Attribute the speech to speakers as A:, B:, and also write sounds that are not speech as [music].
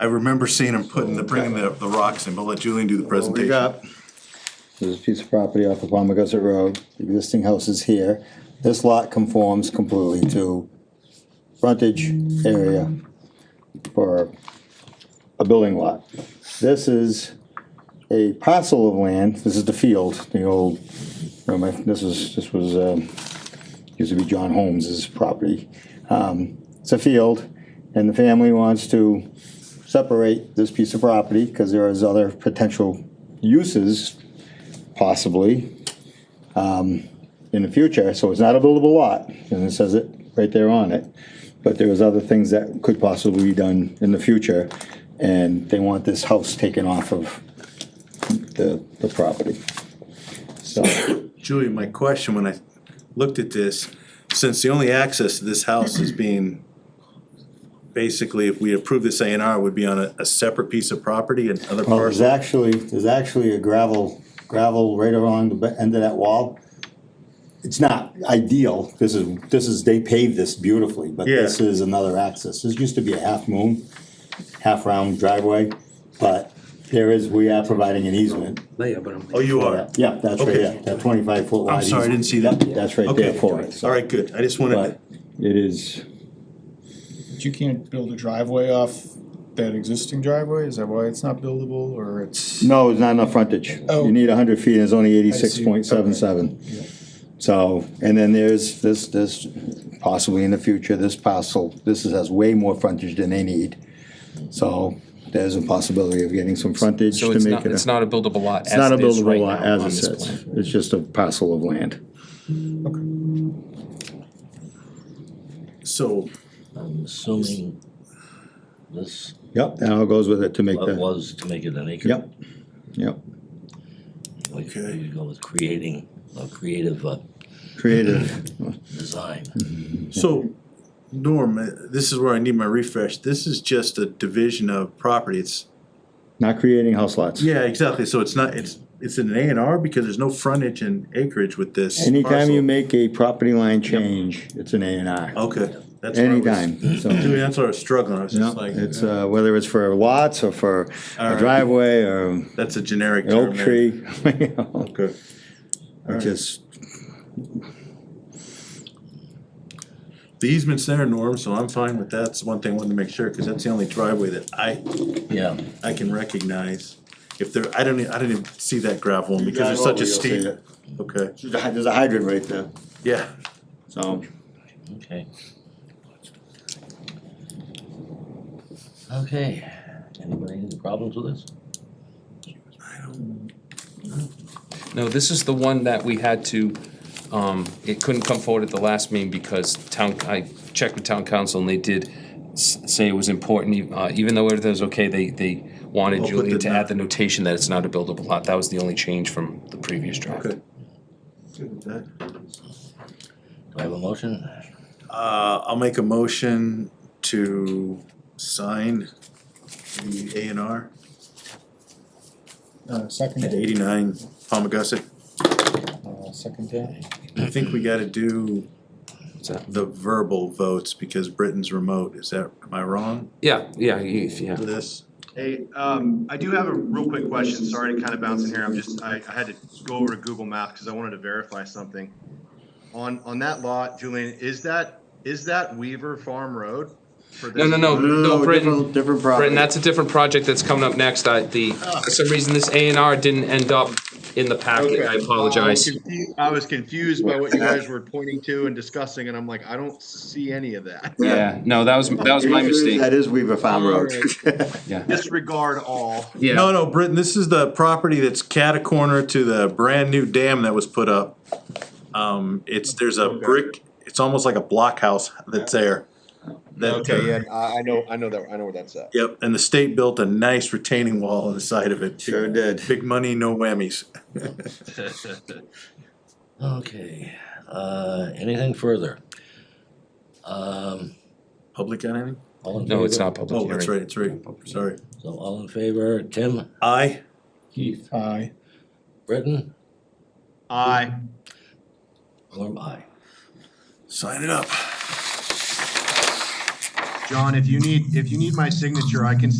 A: I remember seeing him putting the, bringing the, the rocks in, but let Julian do the
B: What we
A: presentation.
B: got?
C: There's a piece of property off of Palma Gussit Road, The existing house is here. This lot conforms completely to frontage area for a building lot. This is a parcel of land, this is the field, the old, remember, this is, this was, um, used to be John Holmes's property. Um, It's a field, and the family wants to separate this piece of property, because there is other potential uses possibly, um, in the future, so it's not a buildable lot, and it says it right there on it. But there was other things that could possibly be done in the future, and they want this house taken off of the, the property. So,
A: Julian, my question when I looked at this, since the only access to this house is being, basically, if we approve this A and R, would be on a, a separate piece of property and other
C: well, there's
A: parcel.
C: actually, there's actually a gravel, gravel right along the be- end of that wall. It's not ideal, this is, this is, they paved this beautifully, but this
A: Yeah.
C: is another access, this used to be a half moon, half round driveway, but there is, we are providing an easement.
D: Layer, but I'm.
A: Oh, you are?
C: Yeah, that's right,
A: Okay.
C: yeah, that twenty-five foot wide.
A: I'm sorry, I didn't see
C: easement.
A: that.
C: That's right there
A: Okay,
C: for it,
A: all right, good. I just wanted,
C: but it is,
E: But you can't build a driveway off that existing driveway, is that why it's not buildable, or it's?
C: no, it's not enough frontage,
E: Oh.
C: you need hundred feet, it's only eighty-six point seven seven.
E: Yeah.
C: So, and then there's this, this, possibly in the future, this parcel, this is- has way more frontage than they need. So there's a possibility of getting some frontage to
F: So it's
C: make
F: not,
C: it. a-
F: it's not a buildable lot as
C: It's not a
F: it is right
C: buildable lot
F: now
C: as
F: on
C: it
F: this
C: sits,
F: plan.
C: it's just a parcel of land.
A: so,
D: I'm assuming this
C: Yep, and it goes with it to make the,
D: was to make it an acre.
C: yep, yep,
D: Like,
A: Okay.
D: you go with creating a creative uh,
C: creative,
D: design.
A: so, Norm, uh, this is where I need my refresh. This is just a division of property. It's,
C: not creating house lots.
A: yeah, exactly. So it's not, it's, it's an A and R because there's no frontage and acreage with this.
C: Anytime you
A: parcel.
C: make a property line change, it's an A and R,
A: Okay. that's where I was-
C: anytime, so.
A: Dude, that's what I was struggling. I was
C: No,
A: just like,
C: it's,
A: uh,
C: uh, whether it's for lots or for a
A: Alright.
C: driveway or an
A: that's a generic term.
C: oak
A: there.
C: tree, [laughs] you know,
A: Okay.
C: it just,
A: The easement's there, Norm, so I'm fine with that. That's one thing I wanted to make sure, cause that's the only driveway that I,
D: Yeah,
A: I can recognize. If there, I don't, e- I didn't even see that gravel one because it's such a steep, okay,
C: There's a hy- there's a hydrant right there,
A: yeah.
C: so.
D: okay. Okay, anybody any problems with this?
F: No, this is the one that we had to, um, it couldn't come forward at the last meeting because town, I checked with town council and they did s- say it was important, e- uh, even though everything was okay, they, they wanted
A: Oh, but
F: Julie
A: did
F: to
A: not.
F: add the notation that it's not a buildable lot. That was the only change from the previous draft.
A: Okay. Good with that.
D: Do I have a motion?
A: Uh, I'll make a motion to sign the A and R
E: Uh,
A: at
E: second,
A: eighty-nine Palmagussit.
E: uh, second day.
A: I think we gotta do
F: What's that?
A: the verbal votes because Britain's remote. Is that, am I wrong
F: Yeah, yeah, you- yeah.
A: with this?
G: Hey, um, I do have a real quick question, sorry to kind of bounce in here, I'm just, I, I had to go over to Google Maps because I wanted to verify something. On, on that lot, Julian, is that, is that Weaver Farm Road? for
F: No,
G: this-
F: no, no, no, Britton,
C: different, different
F: Britton,
C: property.
F: that's a different project that's coming up next. I, the, for some reason, this A and R didn't end up in the packet. I
G: Okay.
F: apologize.
G: I was confu- I was confused by what you guys were pointing to and discussing, and I'm like, I don't see any of that.
F: Yeah, no, that was, that was my mistake.
C: That is Weaver Farm Road. [laughs]
G: Disregard all.
F: Yeah.
A: No, no, Britton, this is the property that's catacorner to the brand-new dam that was put up. Um, it's, there's a brick, it's almost like a blockhouse that's there. That-
G: Okay, yeah, I, I know, I know that, I know where that's at.
A: Yep, and the state built a nice retaining wall on the side of it.
C: Sure did.
A: Big money, no whammies.
D: Okay, uh, anything further? Um,
A: Public got anything?
D: all in favor?
F: No, it's not public
A: Oh,
F: hearing.
A: that's right, that's right, sorry.
D: So all in favor, Tim,
A: I,
D: Keith,
E: Aye.
D: Britton,
G: Aye.
D: Norm, I.
A: sign it up.
G: John, if you need, if you need my signature, I can